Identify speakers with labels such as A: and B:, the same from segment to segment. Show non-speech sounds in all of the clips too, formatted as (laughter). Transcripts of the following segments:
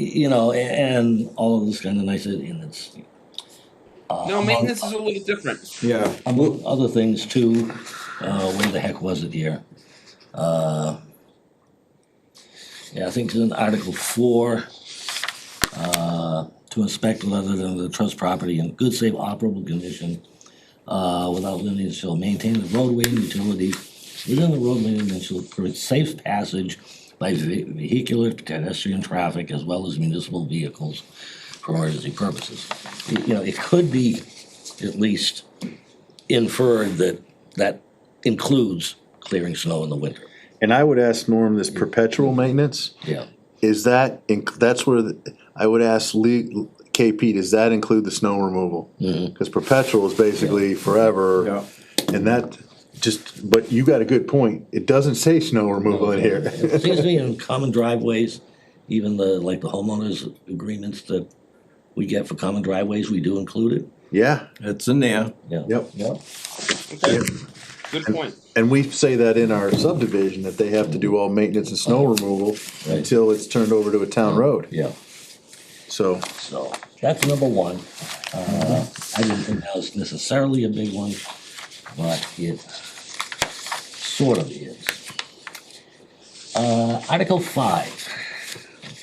A: you know, a- and all of this kind of nice, and it's. uh,
B: No,
A: among-
B: maintenance is a little different.
C: Yeah,
A: Among other things too, uh, where the heck was it here? Uh, Yeah, I think it's in Article four, uh, to inspect whether the trust property in good, safe, operable condition, uh, without lineage shall maintain the roadway and utility within the roadway and shall permit safe passage by ve- vehicular, pedestrian traffic as well as municipal vehicles for emergency purposes. You- You know, it could be at least inferred that that includes clearing snow in the winter.
D: And I would ask Norm, this perpetual maintenance,
A: Yeah.
D: is that, inc- that's where, the- I would ask Lee, KP, does that include the snow removal?
A: Mm-hmm.
D: Cause perpetual is basically
C: yeah.
D: forever, and that, just, but you got a good point, it doesn't say snow removal in here.
A: It seems to me in common driveways, even the, like the homeowners agreements that we get for common driveways, we do include it.
D: (laughs) Yeah,
C: It's in there.
A: Yeah.
D: Yep.
A: Yeah.
B: Okay, good point.
D: and we say that in our subdivision, that they have to do all maintenance and snow removal
A: Right.
D: until it's turned over to a town road,
A: Yeah,
D: so.
A: so that's number one. Uh, I didn't think that was necessarily a big one, but it sort of is. Uh, Article five,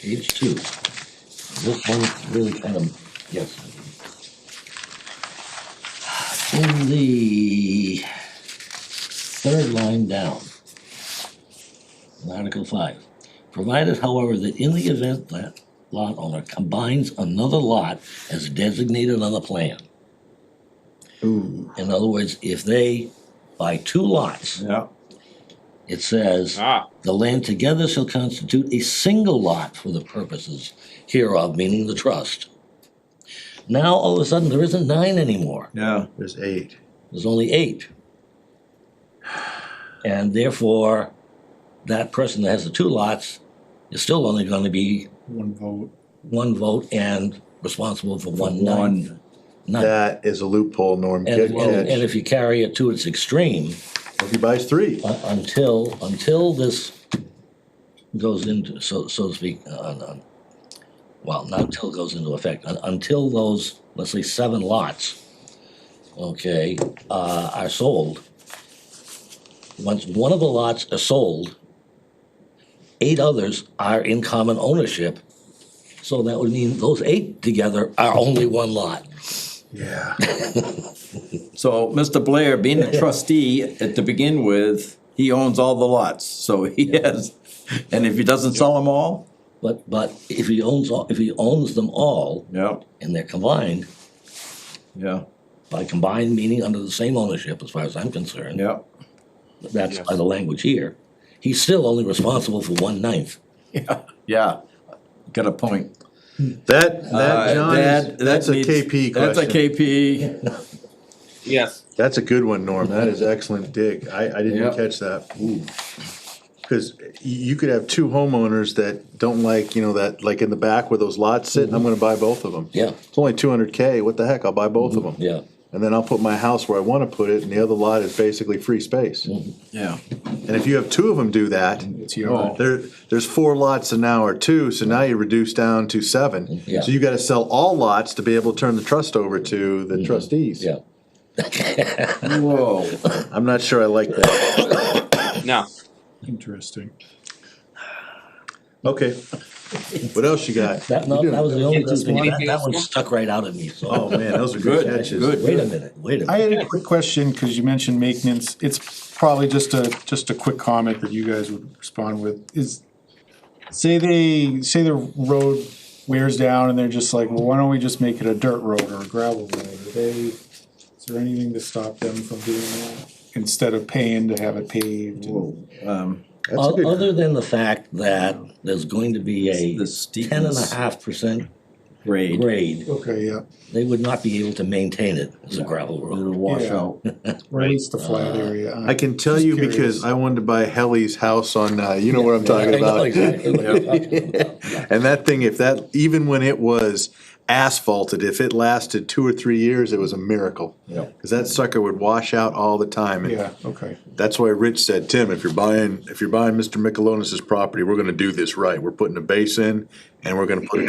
A: page two. This one really kind of, yes. In the third line down, in Article five, provided however that in the event that lot owner combines another lot as designated on the plan. In other words, if they buy two lots,
C: Yeah.
A: it says.
B: Ah,
A: The land together shall constitute a single lot for the purposes hereof, meaning the trust. Now, all of a sudden, there isn't nine anymore,
C: Yeah.
D: There's eight.
A: there's only eight. And therefore, that person that has the two lots is still only gonna be
C: One vote.
A: one vote and responsible for one ninth.
C: One.
A: ninth.
D: That is a loophole, Norm,
A: And,
D: good
A: and and
D: catch,
A: if you carry it to its extreme,
D: if he buys three.
A: Uh, until, until this goes into, so, so to speak, uh, uh, well, not until it goes into effect, un- until those, let's say, seven lots, okay, uh, are sold. Once one of the lots is sold, eight others are in common ownership. So that would mean those eight together are only one lot.
D: Yeah.
C: So Mr. Blair, being a trustee at to begin with, he owns all the lots, so he has, and if he doesn't sell them all,
A: But, but if he owns, all if he owns them all
C: yeah,
A: and they're combined,
C: yeah,
A: by combined meaning under the same ownership, as far as I'm concerned.
C: yeah.
A: That's by the language here. He's still only responsible for one ninth.
C: Yeah, yeah, got a point.
D: That,
C: Uh,
D: that, John,
C: that-
D: is-
C: that
D: that's a
C: needs-
D: KP
C: That's a
D: question.
C: KP,
B: yes.
D: That's a good one, Norm. That is excellent dig. I, I didn't even
C: Yeah.
D: catch that. Cause y- you could have two homeowners that don't like, you know, that, like in the back where those lots sit,
C: Mm-hmm.
D: I'm gonna buy both of them.
A: Yeah.
D: It's only two hundred K. What the heck? I'll buy both of
C: Mm-hmm.
D: them.
A: Yeah.
D: And then I'll put my house where I wanna put it and the other lot is basically free space.
C: Mm-hmm.
D: And
C: yeah.
D: if you have two of them do that,
C: Oh.
D: there, there's four lots an hour too, so now you reduce down to seven.
A: Yeah.
D: So you gotta sell all lots to be able to turn the trust over to the trustees.
A: Mm-hmm. Yeah.
C: (laughs) Whoa,
D: I'm not sure I like that.
B: No.
E: Interesting.
D: Okay. What else you got?
A: That, no, that was the only two
B: Anything
A: things. That,
B: else,
A: that one
B: Mark?
A: stuck right out at me, so.
D: Oh, man, those are good
C: Good,
D: catches.
C: good.
A: Wait a minute, wait a
E: I
A: minute.
E: had a quick question, because you mentioned maintenance, it's probably just a, just a quick comment that you guys would respond with, is, say they, say the road wears down and they're just like, well, why don't we just make it a dirt road or a gravel road, are they, is there anything to stop them from doing that? Instead of paying to have it paved,
C: um,
D: That's a
A: O-
D: good,
A: Other than the fact that there's going to be a
C: The steepness.
A: ten and a half percent
C: great.
A: grade,
E: okay, yeah,
A: they would not be able to maintain it as a gravel road.
C: Little washout.
E: or at least the flat area.
D: I can tell you because I wanted to buy Helly's house on, uh, you know what I'm talking
A: I know
D: about.
A: exactly what you're talking about.
D: And that thing, if that, even when it was asphalted, if it lasted two or three years, it was a miracle.
C: Yeah.
D: Cause that sucker would wash out all the time. And
E: Yeah, okay,
D: That's why Rich said, Tim, if you're buying, if you're buying Mr. Michelonis's property, we're gonna do this right. We're putting a base in and we're gonna put a